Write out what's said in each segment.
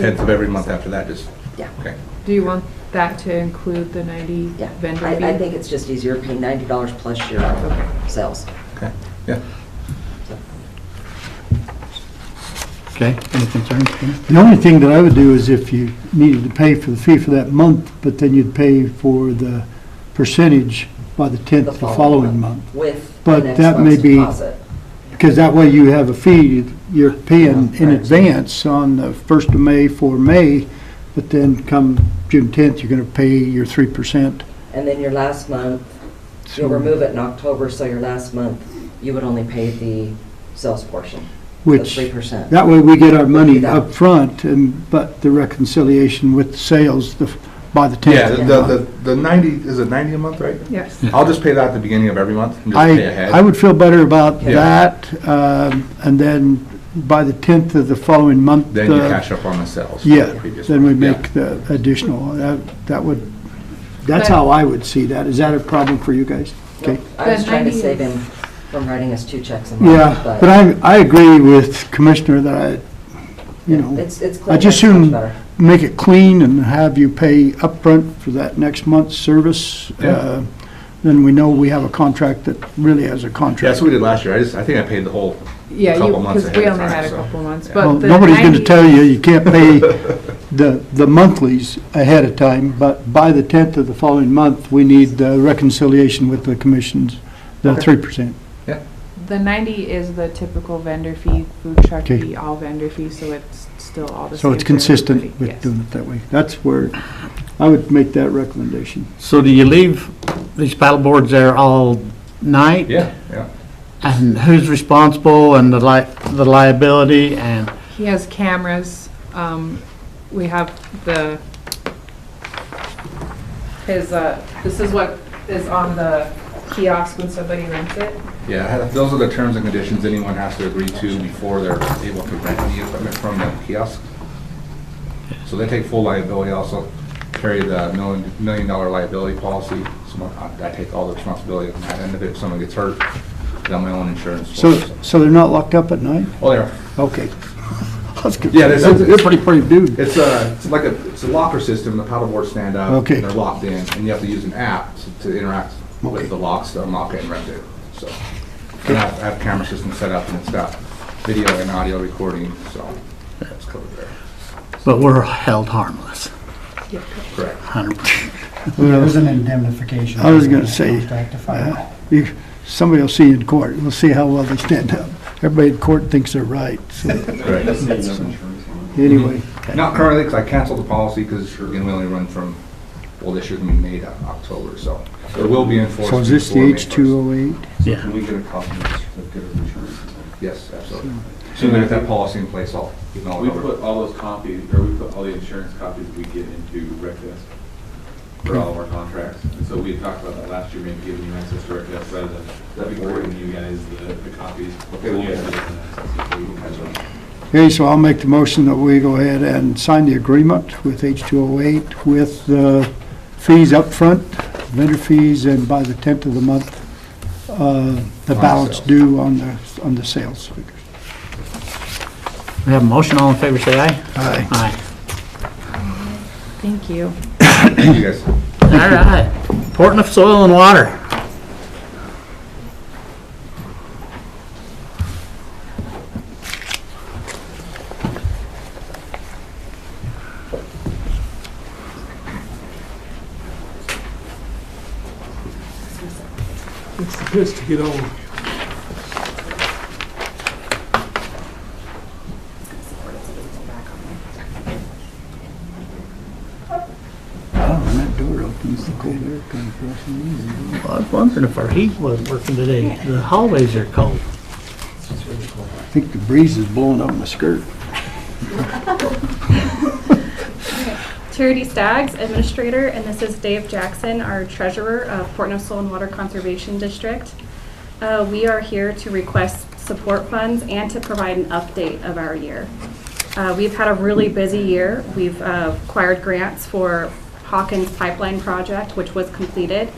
10th of every month after that is, Yeah. okay. Do you want that to include the 90 Yeah, vendor fee? I, I think it's just easier paying ninety dollars plus your Okay. sales. Okay, yeah. Okay, any concerns? Ken? The only thing that I would do is if you needed to pay for the fee for that month, but then you'd pay for the percentage by the 10th the following month. With the But next that may month's be- deposit. Because that way you have a fee you're paying in advance on the 1st of May for May, but then come June 10th, you're going to pay your 3%. And then your last month, you'll remove it in October, so your last month, you would only pay the sales portion, the Which, three percent. that way we get our money up front, and, but the reconciliation with the sales the- by the 10th. Yeah, of the, the the, month. the 90, is it 90 a month, right? Yes. I'll just pay that at the beginning of every month and just pay I, ahead. I would feel better about Yeah. that, um, and then by the 10th of the following month. Then you uh, cash up on the sales. from Yeah, the previous then we month. Yeah. make the additional, that, that would, that's But- how I would see that. Is that a problem for you guys? Okay. I was But trying to 90 save is- him from writing us two checks a month. Yeah, but I, I agree with Commissioner that I, you Yeah, know, It's, it's clean, just it's much assume- better. make it clean and have you pay upfront for that next month's service. Yeah. Uh, Then we know we have a contract that really has a Yeah, contract. that's what we did last year. I just, I think I paid the whole, Yeah, you, Couple months because we ahead of only time, had a so, couple months, yeah. but Well, the nobody's going 90 to tell you, you can't pay the, the monthlies ahead of time, but by the 10th of the following month, we need the reconciliation with the commissions, the Okay. 3%. The 90 is the typical vendor fee, food truck Okay. fee, all vendor fee, so it's still all the same. So it's for consistent everybody, with yes. doing it that way. That's where I would make that recommendation. So do you leave these paddleboards there all night? yeah, yeah. And who's responsible and the li, the liability and, He has cameras, um, we have the, his, uh, this is what is on the kiosk when somebody rents it. Yeah, I had- those are the terms and conditions anyone has to agree to before they're able to rent the equipment from the kiosk. So they take full liability, also carry the million, million dollar liability policy. So I I take all the responsibility on that end of it. If someone gets hurt, then my own insurance. So, so they're not locked up at night? Oh, there. Okay. That's good. Yeah, there's- That's a pretty, pretty dude. It's a, it's like a, it's a locker system, the paddleboards stand up. Okay. and They're locked in, and you have to use an app to- to interact Okay. with the locks to unlock it and rent it, so. And I have, I have camera system set up, and it's got video and audio recording, so that's covered there. but we're held harmless, Correct. 100%. It was an indemnification. I was gonna say, uh, Contract to fire. You- Somebody will see you in court. We'll see how well they stand up. Everybody in court thinks they're right, so Correct. anyway. Not currently, because I canceled the policy, because we can only run from, well, this year can be made out of October, so it will be enforced. So is this the before May first. H208? Yeah. Can we get a copy of the certificate of insurance? Yes, absolutely. Soon as I get that policy in place, I'll email We it over. put all those copies, or we put all the insurance copies we get into Rec Desk for all of our contracts. And so we had talked about that last year, maybe giving you access to Rec Desk rather than, that'd be great, and you guys uh, the, the copies. Okay, we'll You guys get have access to it, so you can catch up. Okay, so I'll make the motion that we go ahead and sign the agreement with H208 with the fees up front, vendor fees, and by the 10th of the month, uh, the On balance sales. due on the, on the sales figures. We have a motion, all in favor, say aye. Aye. Aye. Thank you. Thank you, guys. All right. Portland Soil and Water. Oh, and that door opens, the cold air comes rushing in. Well, I was wondering if our heat was working today. The hallways are cold. I think the breeze is blowing up my skirt. Charity Staggs, Administrator, and this is Dave Jackson, our Treasurer of Port Nussel and Water Conservation District. Uh, We are here to request support funds and to provide an update of our year. Uh, We've had a really busy year. We've uh, acquired grants for Hawkins Pipeline Project, which was completed.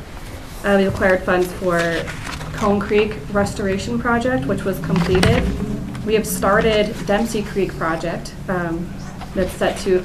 Uh, We acquired funds for Cone Creek Restoration Project, which was completed. We have started Dempsey Creek Project, um, that's set to